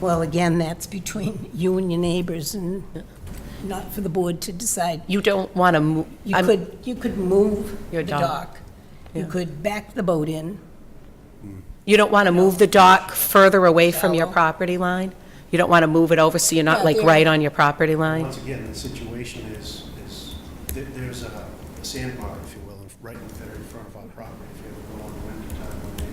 Well, again, that's between you and your neighbors and not for the board to decide. You don't um, want to move. You could, you could move Your the dock. dock. You could back the boat in. You don't want to move the dock further away from your Shallow. property line? You don't want to move it over so you're not Yeah, like there- right on your property line? Once again, the situation is, is, th- there's a sandbar, if you will, in- right in there in front of our property. If you ever go on the winter time, when they,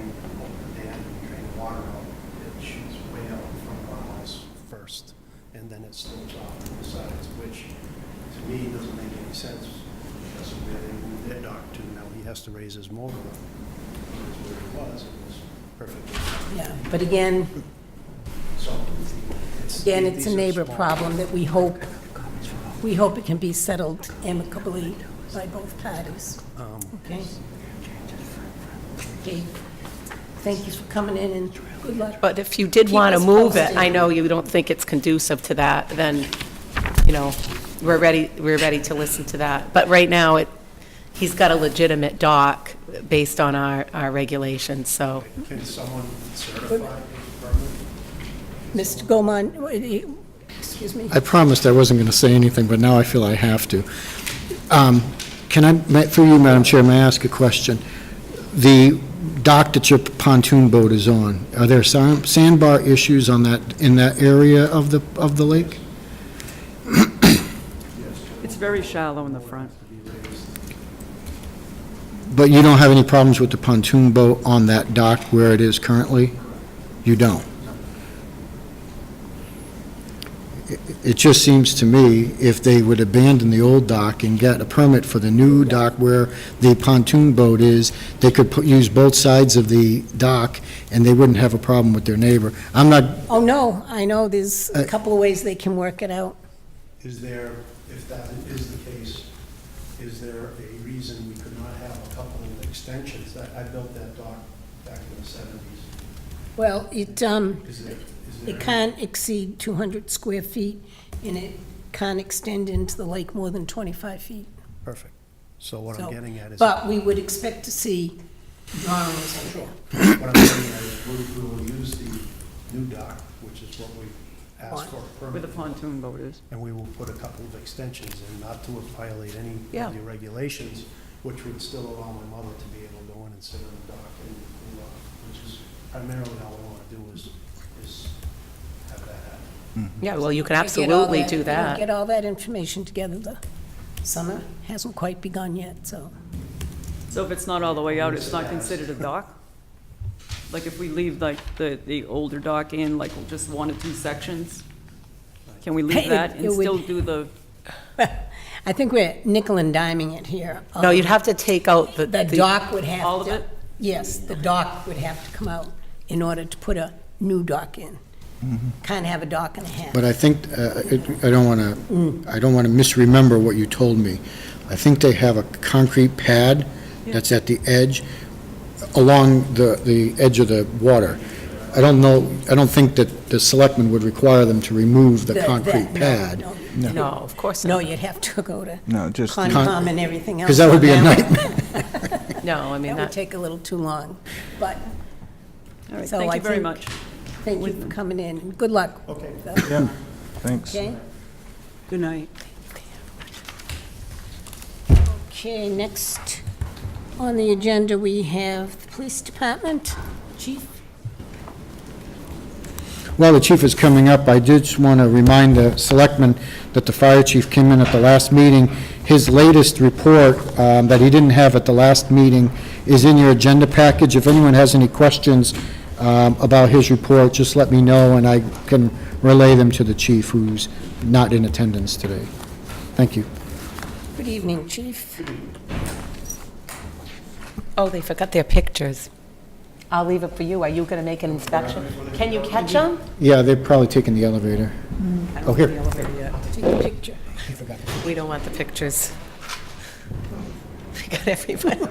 when they drain, open the dam, and drain water out, it shoots way out in front of our house first, and then it slopes off on the sides, which to me doesn't make any sense. That's where they moved their dock to. Now he has to raise his motor up, which is where it was, it was perfect. Yeah, but again, So, it's. again, it's these a are neighbor small- problem that we hope, we hope it can be settled amicably by both parties. Okay? Okay. Thank you for coming in and good luck. But if you did Keep want to us move it, I posted. know you don't think it's conducive to that, then, you know, we're ready, we're ready to listen to that. But right now, it, he's got a legitimate dock based on our, our regulations, so. Can someone certify his permit? Mr. Gomon, wait, you- excuse me, I promised I wasn't going to say anything, but now I feel I have to. Um, Can I, ma- through you, Madam Chair, may I ask a question? The dock that your pontoon boat is on, are there sa- sandbar issues on that, in that area of the, of the lake? It's very shallow in the front. But you don't have any problems with the pontoon boat on that dock where it is currently? You don't? It- It just seems to me, if they would abandon the old dock and get a permit for the new dock where the pontoon boat is, they could put- use both sides of the dock, and they wouldn't have a problem with their neighbor. I'm not, oh, no, I know, there's a Uh, couple of ways they can work it out. Is there, if that is the case, is there a reason we could not have a couple of extensions? I, I built that dock back in the seventies. Well, it, um, Is there, is there? It can't exceed 200 square feet, and it can't extend into the lake more than 25 feet. Perfect. So what I'm So, getting at is, what But we would expect to see drawings, I'm sure. I'm getting at is we we will use the new dock, which is what we asked for a Where the permit. pontoon boat is. And we will put a couple of extensions in, not to violate any Yeah. of the regulations, which would still allow my mother to be able to go in and sit on the dock and cool off, which is primarily how I want to do is, is have that happen. Yeah, well, you can Get all absolutely do we'll that. Get all that information together. The summer hasn't quite begun yet, so. So if it's not all the way out, it's not considered a dock? Like if we leave like the, the older dock in, like just one or two sections? Can we leave that It and would- still do the, I think we're nickel and diming it here. Uh, No, you'd have to take out the. The dock would have to... all of it? Yes, the dock would have to come out in order to put a new dock in. Can't have a dock and a half. Mm-hmm. but I think, uh, it- I don't want to, I don't want to misremember what you told me. I think they have a concrete pad that's at the edge, along the, the edge of the water. I don't know, I don't think that the selectmen would require them to remove the that- concrete no, pad. no. No, of course No, not. you'd have to go to No, just, the- Concom and everything else. Because that would be a on one. nightmare. No, I mean, That would that, take a little too long, but all right, So thank I you very think- much. thank you for coming in, and good luck. Oh, Okay. thanks. Okay? Good night. Okay, next on the agenda, we have the Police Department. Chief? While the chief is coming up, I did just want to remind the selectmen that the fire chief came in at the last meeting. His latest report um, that he didn't have at the last meeting is in your agenda package. If anyone has any questions um, about his report, just let me know, and I can relay them to the chief, who's not in attendance today. Thank you. Good evening, Chief. oh, they forgot their pictures. I'll leave it for you. Are you going to make an inspection? Can you catch them? Yeah, they're probably taking the elevator. Oh, here. Take a picture. We don't want the pictures. We got everybody.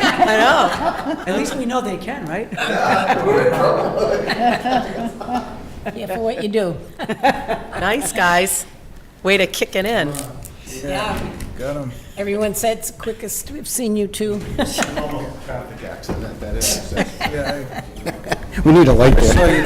At least we know they can, right? Yeah, for what you do. Nice, guys. Way to kick it in. Yeah. Got him. Everyone said it's the quickest we've seen you two. Traffic accident. Yeah, I- We need a light there.